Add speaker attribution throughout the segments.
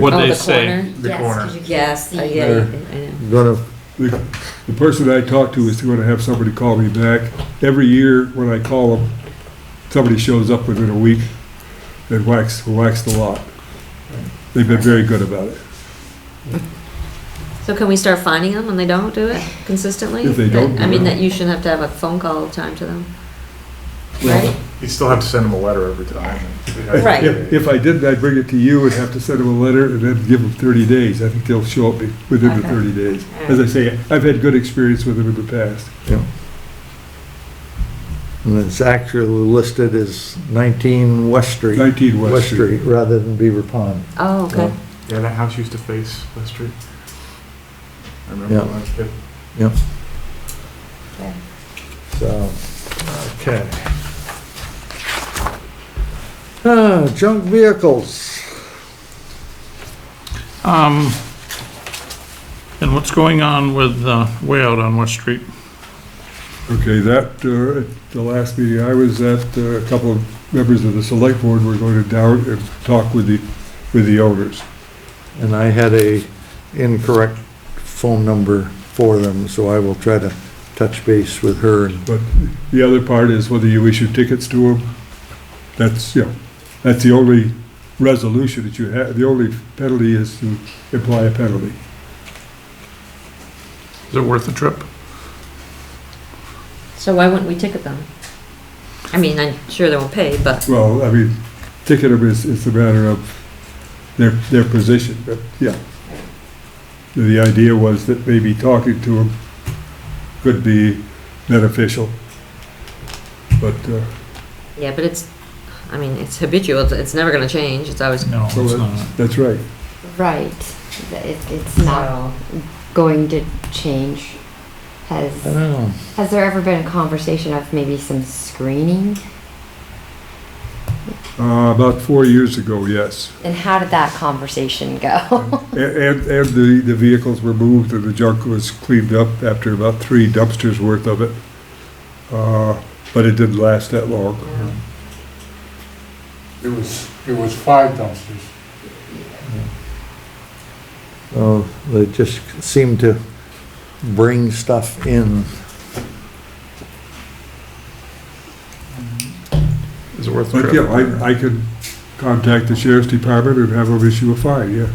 Speaker 1: What
Speaker 2: Oh,
Speaker 1: they
Speaker 2: the
Speaker 1: say,
Speaker 2: corner?
Speaker 1: the
Speaker 3: Yes,
Speaker 1: corner.
Speaker 3: 'cause you can't-
Speaker 2: Yes, I get
Speaker 4: There.
Speaker 2: it, I know.
Speaker 4: Gonna,
Speaker 5: The the person I talk to is gonna have somebody call me back. Every year, when I call them, somebody shows up within a week and whacks, whacks the lot. They've been very good about it.
Speaker 2: So can we start finding them when they don't do it consistently?
Speaker 5: If they don't
Speaker 2: I
Speaker 5: do
Speaker 2: mean,
Speaker 5: it.
Speaker 2: that you shouldn't have to have a phone call time to them, right?
Speaker 5: Well,
Speaker 1: You still have to send them a letter every time.
Speaker 2: Right.
Speaker 5: If, if I didn't, I'd bring it to you and have to send them a letter and then give them 30 days. I think they'll show up within the
Speaker 2: Okay.
Speaker 5: 30 days. As I say, I've had good experience with them in the past.
Speaker 4: and it's actually listed as 19 West Street,
Speaker 5: 19
Speaker 4: West Street, rather than Beaver Pond.
Speaker 2: Oh, okay.
Speaker 1: Yeah, that house used to face West Street. I
Speaker 4: Yeah.
Speaker 1: remember when I was a kid.
Speaker 4: So, okay. Uh, junk vehicles.
Speaker 6: Um, and what's going on with, uh, way out on West Street?
Speaker 5: Okay, that, uh, at the last meeting I was at, uh, a couple of members of the select board were going to down and talk with the, with the owners.
Speaker 4: And I had a incorrect phone number for them, so I will try to touch base with her. and-
Speaker 5: But the other part is whether you issue tickets to them, that's, you know, that's the only resolution that you have, the only penalty is to imply a penalty.
Speaker 6: Is it worth the trip?
Speaker 2: So why wouldn't we ticket them? I mean, I'm sure they won't pay, but,
Speaker 5: Well, I mean, ticket them is, is a matter of their, their position, but, yeah. The idea was that maybe talking to them could be beneficial. But, uh,
Speaker 2: yeah, but it's, I mean, it's habitual, it's- it's never gonna change, it's always.
Speaker 6: No, it's
Speaker 5: So it-
Speaker 6: not.
Speaker 5: that's right.
Speaker 3: Right, it, it's not going to change.
Speaker 4: I don't
Speaker 3: Has,
Speaker 4: know.
Speaker 3: has there ever been a conversation of maybe some screening?
Speaker 5: Uh, about four years ago, yes.
Speaker 3: And how did that conversation go?
Speaker 5: And, and and the, the vehicles were moved and the junk was cleaned up after about three dumpsters worth of it. Uh, but it didn't last that long.
Speaker 2: Mm-hmm.
Speaker 7: It was, it was five dumpsters.
Speaker 4: Oh, they just seem to bring stuff in.
Speaker 6: Is it worth the
Speaker 5: But
Speaker 6: trip?
Speaker 5: yeah, I, I could contact the sheriff's department and have them issue a fine, yeah.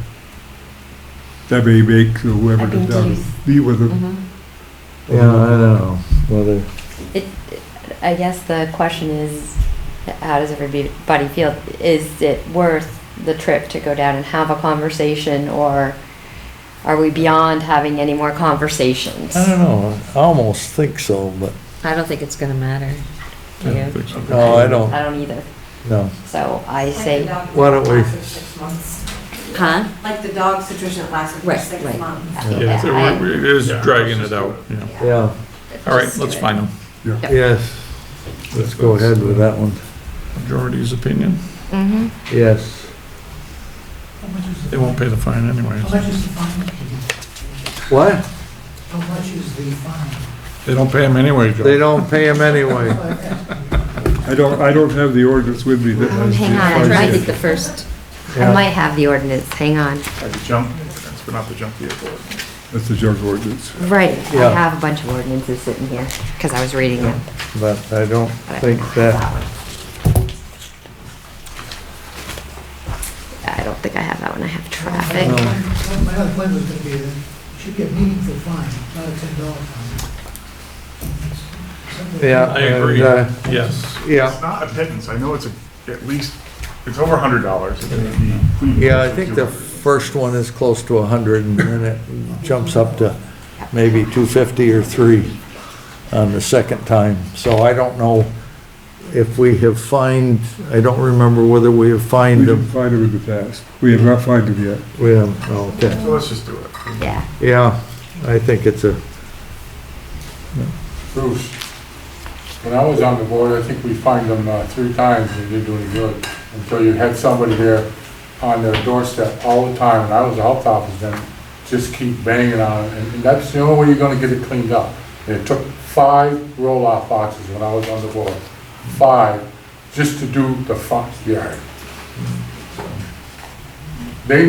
Speaker 5: That may make whoever
Speaker 3: I think
Speaker 5: goes down,
Speaker 3: you-
Speaker 5: meet with them.
Speaker 2: Mhm.
Speaker 4: Yeah, I don't know whether,
Speaker 3: I guess the question is, how does everybody feel? Is it worth the trip to go down and have a conversation or are we beyond having any more conversations?
Speaker 4: I don't know, I almost think so, but,
Speaker 2: I don't think it's gonna matter to
Speaker 6: Yeah,
Speaker 2: you.
Speaker 6: but-
Speaker 4: no, I don't,
Speaker 3: I don't either,
Speaker 4: no.
Speaker 3: so I say.
Speaker 4: Why don't we-
Speaker 8: Six months.
Speaker 2: Huh?
Speaker 8: Like the dog situation that lasted for
Speaker 2: Right,
Speaker 8: six
Speaker 2: right.
Speaker 8: months.
Speaker 6: Yeah, so
Speaker 3: I-
Speaker 6: we're- we're- It is
Speaker 1: Yeah.
Speaker 6: dragging it out, yeah.
Speaker 4: Yeah,
Speaker 6: All right,
Speaker 3: Just
Speaker 6: let's
Speaker 3: do it.
Speaker 6: find them.
Speaker 4: yes, let's go ahead with that one.
Speaker 6: Majority's opinion.
Speaker 2: Mm-hmm.
Speaker 3: Mhm.
Speaker 4: Yes,
Speaker 6: They won't pay the fine anyways.
Speaker 4: what?
Speaker 6: They don't pay them anyway, Joe.
Speaker 4: They don't pay them anyway.
Speaker 5: I don't, I don't have the ordinance with me that
Speaker 3: Um,
Speaker 5: has the
Speaker 3: Mm-hmm. hang on,
Speaker 5: fine
Speaker 3: I'm
Speaker 2: I
Speaker 3: trying
Speaker 2: think
Speaker 5: yet.
Speaker 2: the first,
Speaker 3: I
Speaker 4: Yeah.
Speaker 3: might have the ordinance, hang on.
Speaker 1: Like the junk, that's been off the junk vehicle.
Speaker 5: That's the junk ordinance.
Speaker 3: Right,
Speaker 4: Yeah.
Speaker 3: I have a bunch of ordinances sitting here, because I was reading them.
Speaker 4: But I don't
Speaker 3: but I
Speaker 4: think
Speaker 3: don't have
Speaker 4: that,
Speaker 3: one. I don't think I have that one, I have traffic.
Speaker 9: My other point was gonna be that you should get meaningful fine, not a ten dollar fine. Something-
Speaker 4: yeah.
Speaker 6: I agree,
Speaker 4: and, uh,
Speaker 6: yes.
Speaker 4: Yeah,
Speaker 1: It's not a pittance, I know it's a- at least, it's over a hundred dollars. It may be clean.
Speaker 4: yeah, I think the first one is close to 100 and then it jumps up to maybe 250 or 3 on the second time. So I don't know if we have fined, I don't remember whether we have
Speaker 5: We
Speaker 4: fined
Speaker 5: didn't
Speaker 4: them.
Speaker 5: find them in the past. We have not fined them yet.
Speaker 4: We have, okay.
Speaker 1: So let's just do it.
Speaker 3: Yeah,
Speaker 4: Yeah, I think it's a,
Speaker 7: Bruce, when I was on the board, I think we fined them uh, three times and they didn't do any good. Until you had somebody there on their doorstep all the time, and I was the health officer, then just keep banging on it. And and that's the only way you're gonna get it cleaned up. And It took five roll-off boxes when I was on the board, five, just to do the front yard.